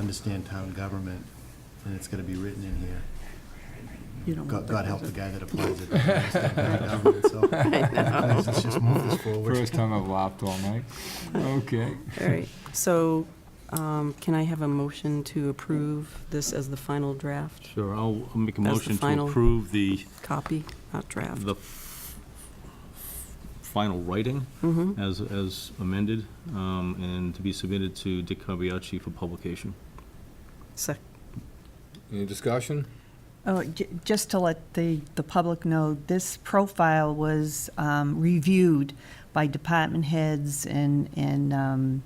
understand town government, and it's gonna be written in here. You don't God, want God that. help the guy that applies it. doesn't understand town government, so Let's just move this forward. First time I've laughed all night. Okay. All right, so um, can I have a motion to approve this as the final draft Sure, I'll I'll make a That's the motion to final- approve the, copy, not draft? the f- final writing Mm-hmm, as, as amended, um, and to be submitted to Dick Carbiacci for publication. sec, Any discussion? Oh, j- Just to let the, the public know, this profile was um, reviewed by department heads and, and um,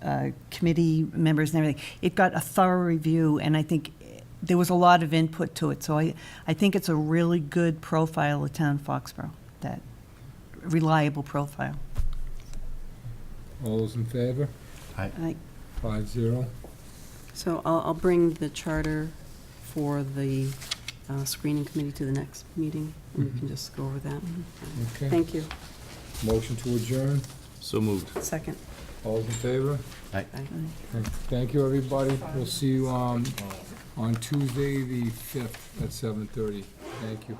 uh, committee members and everything. It got a thorough review, and I think there was a lot of input to it. So I, I think it's a really good profile of town Foxborough, that reliable profile. All those in favor? I- Five zero. so I'll, I'll bring the charter for the uh, screening committee to the next meeting, and we can Mhm. just go over that. Mm-hmm. Okay. Thank you, Motion to adjourn. So moved. second. All those in favor? Aye. Thank you, everybody. We'll see you um, on Tuesday, the 5th, at 7:30. Thank you.